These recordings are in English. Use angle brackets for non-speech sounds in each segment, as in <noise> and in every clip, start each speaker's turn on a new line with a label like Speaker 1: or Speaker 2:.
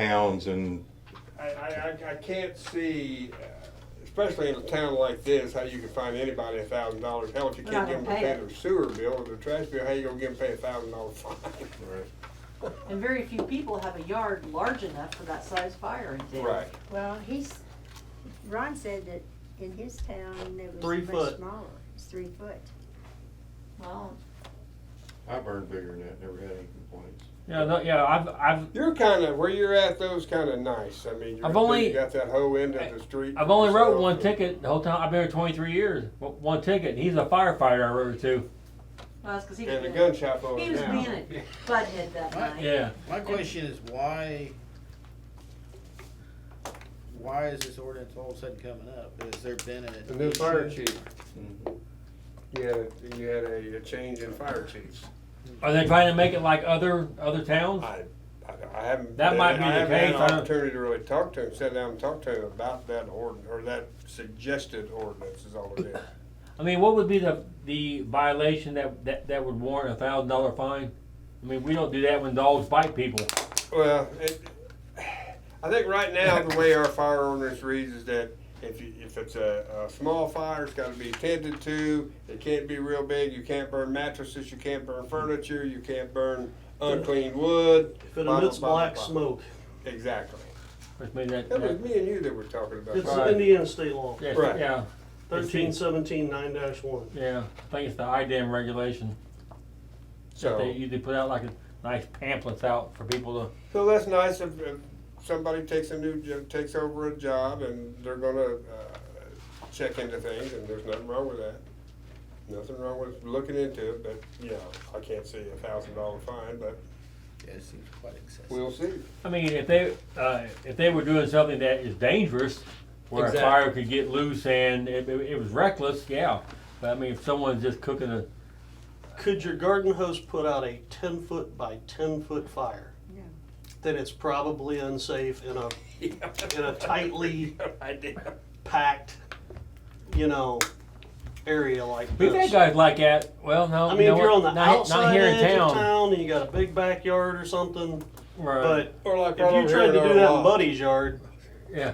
Speaker 1: towns and,
Speaker 2: I, I, I- I can't see, uh, especially in a town like this, how you can find anybody a thousand dollars. Hell, if you
Speaker 3: We're
Speaker 2: can't
Speaker 3: not
Speaker 2: get them to
Speaker 3: gonna pay
Speaker 2: pay
Speaker 3: it.
Speaker 2: their sewer bill or their trash bill, how you gonna get them to pay a thousand dollar <laughs> fine?
Speaker 3: And very few people have a yard large enough for that size fire in town.
Speaker 4: Well, he's, Ron said that in his town, it was
Speaker 5: Three
Speaker 4: much
Speaker 5: foot.
Speaker 4: smaller, it's three foot.
Speaker 3: Well,
Speaker 1: I burned bigger than that, never had any complaints.
Speaker 6: Yeah, no, yeah, I've, I've,
Speaker 2: You're kinda, where you're at, those kinda nice. I mean, you're,
Speaker 6: I've
Speaker 2: up there,
Speaker 6: only-
Speaker 2: you got that whole end of the street.
Speaker 6: I've only wrote
Speaker 2: yourself,
Speaker 6: one
Speaker 2: so-
Speaker 6: ticket the whole time. I've been here 23 years. One- One ticket. And he's a firefighter. I wrote to.
Speaker 3: no, that's 'cause he was
Speaker 2: And the
Speaker 3: being-
Speaker 2: gun shop over
Speaker 3: He was
Speaker 2: now.
Speaker 3: being
Speaker 2: <laughs>
Speaker 3: a butthead that
Speaker 5: Right.
Speaker 3: night.
Speaker 6: Yeah.
Speaker 5: My question is why, why is this ordinance all of a sudden coming up? Has there been a?
Speaker 2: The new fire chief, Mm-hmm. you had, a- you had a, a change in fire chiefs.
Speaker 6: Are they trying to make it like other other towns?
Speaker 2: I, I I haven't.
Speaker 6: That might be
Speaker 2: I
Speaker 6: the
Speaker 2: haven't had an
Speaker 6: case, I don't-
Speaker 2: Opportunity to really talk to him, sit down and talk to him about that ordinance, or that suggested ordinance is all it
Speaker 7: <coughs>
Speaker 2: is.
Speaker 6: I mean, what would be the the violation that that, that would warrant a thousand dollar fine? I mean, we don't do that when dogs bite people.
Speaker 2: Well, it, I think right now, the way our fire ordinance reads is that if you, if it's a, a small fire, it's gotta be tended to, it can't be real big, you can't burn mattresses, you can't burn furniture, you can't burn unclean wood.
Speaker 7: If it
Speaker 2: blah, blah,
Speaker 7: emits
Speaker 2: blah, blah,
Speaker 7: black
Speaker 2: blah.
Speaker 7: smoke,
Speaker 2: Exactly.
Speaker 6: Which means that,
Speaker 2: That was
Speaker 6: that
Speaker 2: me and you that were talking about.
Speaker 7: it's
Speaker 2: that.
Speaker 6: Right.
Speaker 7: Indiana state law,
Speaker 6: yes,
Speaker 2: Right.
Speaker 6: yeah,
Speaker 7: thirteen seventeen nine dash one.
Speaker 6: yeah. I think it's the IDAM regulation that
Speaker 2: So,
Speaker 6: they usually put out like a nice pamphlets out for people to.
Speaker 2: so that's nice if, if somebody takes a new, jo- takes over a job and they're gonna, uh, check into things and there's nothing wrong with that. Nothing wrong with looking into it, but, you know, I can't see a thousand dollar fine, but
Speaker 5: Yeah, it seems quite excessive.
Speaker 2: we'll see.
Speaker 6: I mean, if they uh, if they were doing something that is dangerous, where
Speaker 5: Exactly.
Speaker 6: a fire could get loose and it, it, it was reckless, yeah. But I mean, if someone's just cooking a
Speaker 7: Could your garden hose put out a ten foot by ten foot fire?
Speaker 4: No.
Speaker 7: Then it's probably unsafe
Speaker 2: <laughs>
Speaker 7: in a, in a tightly
Speaker 2: idea.
Speaker 7: packed, you know, area like
Speaker 6: We've had
Speaker 7: this.
Speaker 6: guys like that. Well, no,
Speaker 7: I
Speaker 6: you
Speaker 7: mean,
Speaker 6: know
Speaker 7: if you're
Speaker 6: what?
Speaker 7: on the
Speaker 6: not, not
Speaker 7: outside
Speaker 6: here in
Speaker 7: edge
Speaker 6: town.
Speaker 7: of town and you got a big backyard or something,
Speaker 6: Right.
Speaker 7: but
Speaker 2: Or like
Speaker 7: if
Speaker 2: right
Speaker 7: you
Speaker 2: over
Speaker 7: tried
Speaker 2: here in
Speaker 7: to do
Speaker 2: our
Speaker 7: that in
Speaker 2: lot.
Speaker 7: Buddy's yard,
Speaker 6: yeah,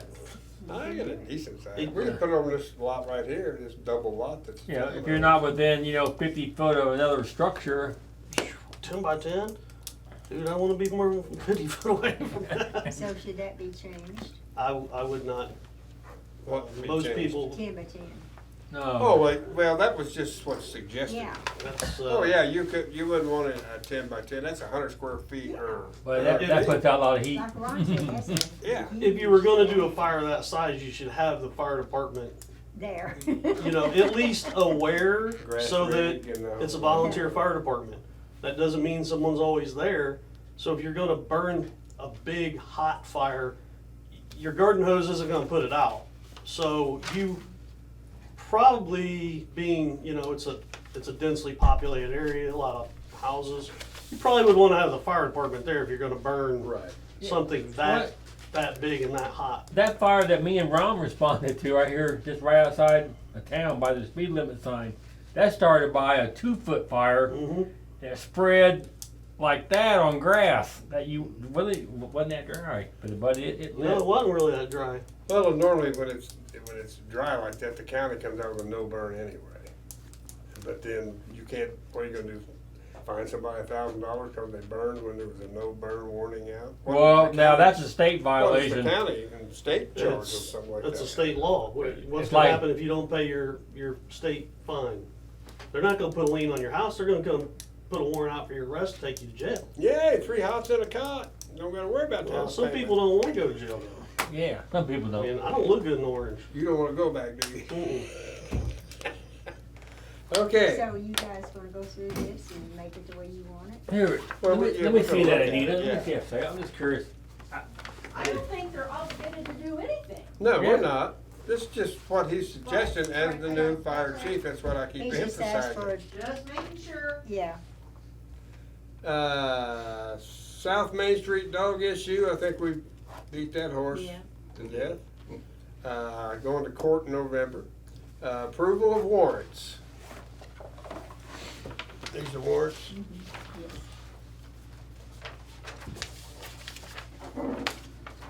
Speaker 2: I got a decent size.
Speaker 7: Yeah.
Speaker 2: We can put it on this lot right here, this double lot that's.
Speaker 6: you know, if you're not within you know 50 foot of another structure,
Speaker 7: ten by ten, dude, I want to be more than fifty <laughs> foot
Speaker 2: <laughs>
Speaker 7: away from
Speaker 5: <laughs>
Speaker 7: that.
Speaker 4: So should that be changed,
Speaker 7: I, I would not.
Speaker 2: What can be
Speaker 7: Most
Speaker 2: changed?
Speaker 7: people,
Speaker 4: ten by ten?
Speaker 6: no.
Speaker 2: Oh, wait, well, that was just what's suggested.
Speaker 4: Yeah,
Speaker 7: that's, uh,
Speaker 2: Oh, yeah, you could, you wouldn't want a a ten by ten, that's a hundred square feet or.
Speaker 6: but that,
Speaker 7: Yeah.
Speaker 6: that puts out a lot of heat.
Speaker 4: like Ron said,
Speaker 7: <laughs>
Speaker 4: that's a-
Speaker 2: Yeah.
Speaker 7: If you were gonna do a fire that size, you should have the fire department,
Speaker 4: there.
Speaker 7: you
Speaker 4: <laughs>
Speaker 7: know, at least aware
Speaker 2: Grass
Speaker 7: so that
Speaker 2: rig and, uh,
Speaker 7: it's a volunteer fire department. That doesn't mean someone's always there. So if you're gonna burn a big hot fire, y- your garden hose isn't gonna put it out. So you probably being, you know, it's a, it's a densely populated area, a lot of houses. You probably would wanna have the fire department there if you're gonna burn
Speaker 2: Right.
Speaker 7: something
Speaker 6: Right.
Speaker 7: that, that big and that hot.
Speaker 6: That fire that me and Ron <laughs> responded to right here, just right outside the town by the speed limit sign, that started by a two foot fire
Speaker 7: Mhm.
Speaker 6: that spread like that on grass. That you really wasn't that dry, but but it, it
Speaker 7: No,
Speaker 6: lit.
Speaker 7: it wasn't really that dry.
Speaker 2: Well, normally when it's, when it's dry like that, the county comes out with no burn anyway. But then you can't, what are you gonna do? Find somebody a thousand dollars because they burned when there was a no burn warning out?
Speaker 6: well, now that's a state
Speaker 2: Well, it's the
Speaker 6: violation.
Speaker 2: county and state charge or
Speaker 7: It's-
Speaker 2: something like that.
Speaker 7: That's a state law. What- What's
Speaker 6: It's
Speaker 7: gonna
Speaker 6: like-
Speaker 7: happen if you don't pay your, your state fine? They're not gonna put a lien on your house, they're gonna come put a warrant out for your arrest, take you to jail.
Speaker 2: Yay, three hots and a cot. Don't gotta worry about
Speaker 7: Well,
Speaker 2: that.
Speaker 7: some people don't wanna go to jail though.
Speaker 6: Yeah, some people
Speaker 7: I
Speaker 6: don't.
Speaker 7: mean, I don't look good in orange.
Speaker 2: You don't wanna go back, do you?
Speaker 7: Mm-mm.
Speaker 2: Okay.
Speaker 4: So you guys wanna go through this and make it the way you want it?
Speaker 6: Here,
Speaker 2: Well,
Speaker 6: let
Speaker 2: we-
Speaker 6: me,
Speaker 2: yeah,
Speaker 6: let me
Speaker 2: we
Speaker 6: see
Speaker 2: can
Speaker 6: that,
Speaker 2: look at
Speaker 6: Anita.
Speaker 2: it,
Speaker 6: Let me see a second. I'm just curious.
Speaker 8: I don't think they're obligated to do anything.
Speaker 2: No,
Speaker 6: Yeah.
Speaker 2: we're not. This is just what he's suggesting as the new fire chief. That's what I
Speaker 4: He
Speaker 2: keep
Speaker 4: just asked for,
Speaker 2: emphasizing.
Speaker 4: a-
Speaker 8: Just making sure.
Speaker 4: yeah,
Speaker 2: Uh, South Main Street dog issue, I think we beat that horse
Speaker 4: Yeah.
Speaker 2: to death. Uh, going to court in November. Uh, approval of warrants. These are warrants.